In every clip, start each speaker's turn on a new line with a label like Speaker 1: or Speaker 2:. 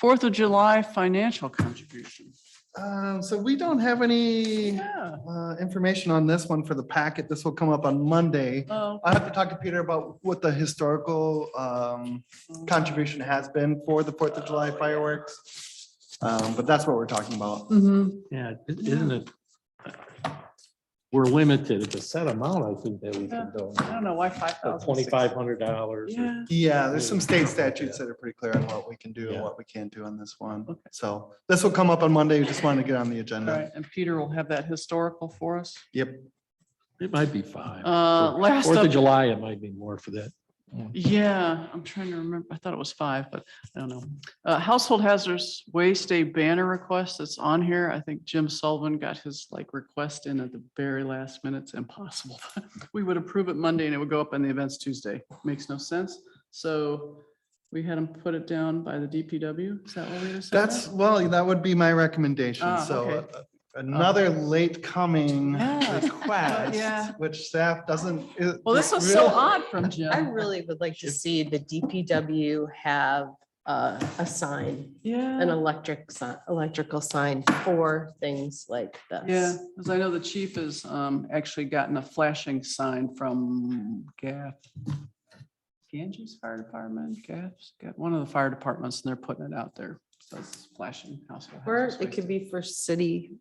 Speaker 1: Fourth of July financial contribution.
Speaker 2: Um, so we don't have any
Speaker 1: Yeah.
Speaker 2: uh, information on this one for the packet. This will come up on Monday.
Speaker 1: Oh,
Speaker 2: I have to talk to Peter about what the historical um, contribution has been for the Fourth of July fireworks. Um, But that's what we're talking about.
Speaker 1: mhm.
Speaker 3: Yeah, i- isn't it? We're limited. It's a set amount, I think, that we can
Speaker 1: I
Speaker 3: donate.
Speaker 1: don't know why five thousand.
Speaker 3: Twenty-five hundred dollars.
Speaker 1: Yeah,
Speaker 2: Yeah, there's some state statutes that are pretty clear on what we can do and what we can't do on this one.
Speaker 1: Okay.
Speaker 2: So this will come up on Monday. We just wanted to get on the
Speaker 1: all
Speaker 2: agenda.
Speaker 1: right. And Peter will have that historical for us.
Speaker 2: Yep.
Speaker 3: It might be five.
Speaker 1: Uh,
Speaker 3: For
Speaker 1: last
Speaker 3: Fourth
Speaker 1: up-
Speaker 3: of July, it might be more for that.
Speaker 1: Yeah, I'm trying to remember. I thought it was five, but I don't know. Uh, household hazards waste day banner request that's on here. I think Jim Sullivan got his like request in at the very last minute. It's impossible. We would approve it Monday and it would go up on the events Tuesday. Makes no sense. So we had him put it down by the DPW. Is that what we decided?
Speaker 2: That's, well, that would be my recommendation.
Speaker 1: Ah,
Speaker 2: So
Speaker 1: okay.
Speaker 2: uh, another late coming
Speaker 1: Yeah. Yeah.
Speaker 2: request, which staff doesn't. it-
Speaker 1: Well, this was so
Speaker 2: real-
Speaker 1: odd from
Speaker 4: I
Speaker 1: Jim.
Speaker 4: really would like to see the DPW have uh, a sign, an
Speaker 1: Yeah,
Speaker 4: electric, si- electrical sign for things like
Speaker 1: yeah,
Speaker 4: this.
Speaker 1: because I know the chief has um actually gotten a flashing sign from Gaff. Ganges Fire Department, Gaff's got one of the fire departments and they're putting it out there. So it's flashing household.
Speaker 4: Or
Speaker 1: hazards
Speaker 4: it could
Speaker 1: waste.
Speaker 4: be for city.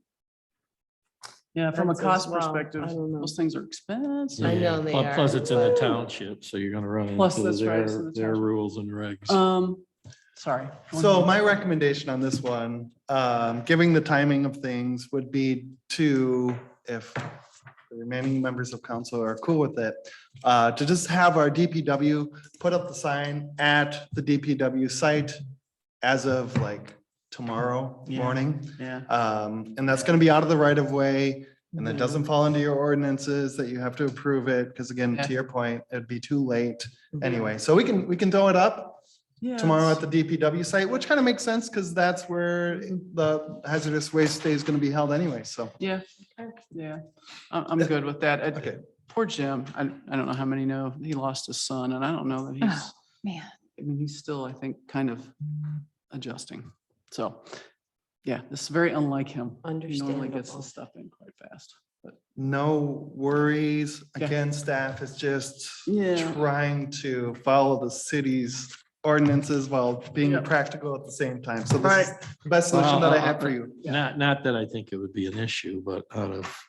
Speaker 1: Yeah, from a
Speaker 4: fence as
Speaker 1: cost
Speaker 4: well.
Speaker 1: perspective,
Speaker 4: I don't know.
Speaker 1: those things are expensive.
Speaker 4: I know
Speaker 3: Yeah,
Speaker 4: they
Speaker 3: pl-
Speaker 4: are.
Speaker 3: Plus, it's in the township, so you're gonna run
Speaker 1: Plus,
Speaker 3: into
Speaker 1: that's right, it's in
Speaker 3: their,
Speaker 1: the
Speaker 3: their
Speaker 1: township.
Speaker 3: rules and regs.
Speaker 1: Um, sorry.
Speaker 2: So my recommendation on this one, um, giving the timing of things would be to, if the remaining members of council are cool with it, uh, to just have our DPW put up the sign at the DPW site as of like tomorrow
Speaker 1: Yeah.
Speaker 2: morning.
Speaker 1: Yeah.
Speaker 2: Um, and that's gonna be out of the right of way. And that
Speaker 1: Yeah.
Speaker 2: doesn't fall into your ordinances that you have to approve it, because again,
Speaker 1: Yeah.
Speaker 2: to your point, it'd be too late anyway. So we can, we can throw it up
Speaker 1: Yeah,
Speaker 2: tomorrow
Speaker 1: it's-
Speaker 2: at the DPW site, which kind of makes sense because that's where the hazardous waste day is going to be held anyway. So,
Speaker 1: Yeah, yeah, I'm, I'm good with that. I-
Speaker 2: okay.
Speaker 1: Poor Jim, I, I don't know how many know, he lost his son and I don't know that he's,
Speaker 4: Man.
Speaker 1: I mean, he's still, I think, kind of adjusting. So, yeah, this is very unlike him. He normally gets
Speaker 4: Understandable.
Speaker 1: this stuff in quite fast.
Speaker 2: No worries.
Speaker 1: Yeah.
Speaker 2: Again, staff is just
Speaker 1: Yeah.
Speaker 2: trying to follow the city's ordinances while being
Speaker 1: Yeah.
Speaker 2: practical at the same time. So this is the best solution
Speaker 3: Well,
Speaker 2: that I have for you.
Speaker 3: Not, not that I think it would be an issue, but out of,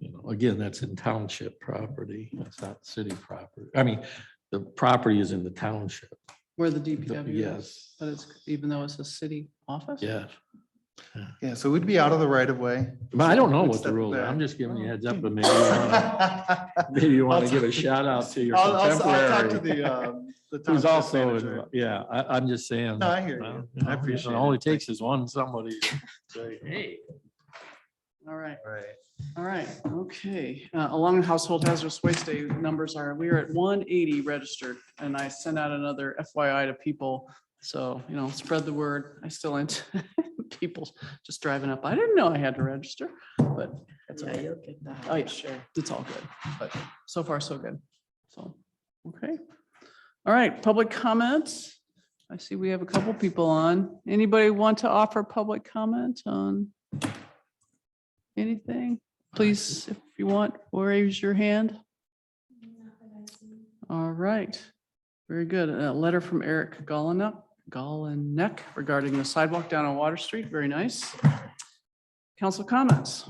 Speaker 3: you know, again, that's in township property. That's not city property. I mean, the property is in the township.
Speaker 1: Where the DPW is,
Speaker 3: Yes.
Speaker 1: but it's, even though it's a city office?
Speaker 3: Yeah,
Speaker 2: Yeah, so we'd be out of the right of way.
Speaker 3: but I don't know
Speaker 2: Good
Speaker 3: what the
Speaker 2: step
Speaker 3: rules are.
Speaker 2: back.
Speaker 3: I'm just giving you a heads up, but maybe you wanna-
Speaker 2: I'll,
Speaker 3: maybe you want
Speaker 2: I'll
Speaker 3: to give a
Speaker 2: talk-
Speaker 3: shout out to your
Speaker 2: I'll I'll talk to
Speaker 3: contemporary.
Speaker 2: the, um, the
Speaker 3: Who's
Speaker 2: township
Speaker 3: also,
Speaker 2: manager.
Speaker 3: in- yeah, I, I'm just saying.
Speaker 2: No, I hear
Speaker 3: well,
Speaker 2: you.
Speaker 3: you know,
Speaker 2: I appreciate
Speaker 3: It only
Speaker 2: it. Thank
Speaker 3: takes is one somebody. to say, Hey,
Speaker 1: All right.
Speaker 2: All right.
Speaker 1: All right, okay. Uh, Along the household hazardous waste day numbers are, we are at one eighty registered, and I sent out another FYI to people. So, you know, spread the word. I still ain't people just driving up. I didn't know I had to register, but that's
Speaker 4: Yeah,
Speaker 1: okay.
Speaker 4: you'll get that.
Speaker 1: Oh,
Speaker 4: I'm
Speaker 1: yeah.
Speaker 4: Sure.
Speaker 1: It's all good, but so far, so good. So, okay. All right, public comments. I see we have a couple people on. Anybody want to offer public comment on anything? Please, if you want, raise your hand. All right, very good. A letter from Eric Gallinup, Gallinek regarding the sidewalk down on Water Street. Very nice. Council comments.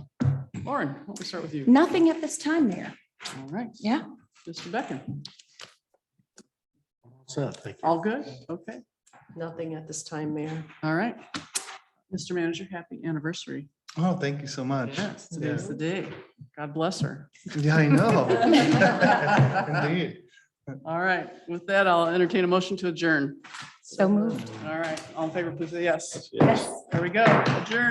Speaker 1: Lauren, why don't we start with you?
Speaker 5: Nothing at this time, Mayor.
Speaker 1: All right.
Speaker 5: Yeah.
Speaker 1: Mr. Beckon,
Speaker 3: so, thank you.
Speaker 1: all good? Okay,
Speaker 4: Nothing at this time, Mayor.
Speaker 1: all right. Mr. Manager, happy anniversary.
Speaker 2: Oh, thank you so much.
Speaker 1: Yes, today's the day. God bless her.
Speaker 2: Yeah, I know. Indeed.
Speaker 1: All right, with that, I'll entertain a motion to adjourn.
Speaker 5: So moved.
Speaker 1: All right, all in favor, please say yes.
Speaker 5: Yes.
Speaker 1: There we go, adjourn.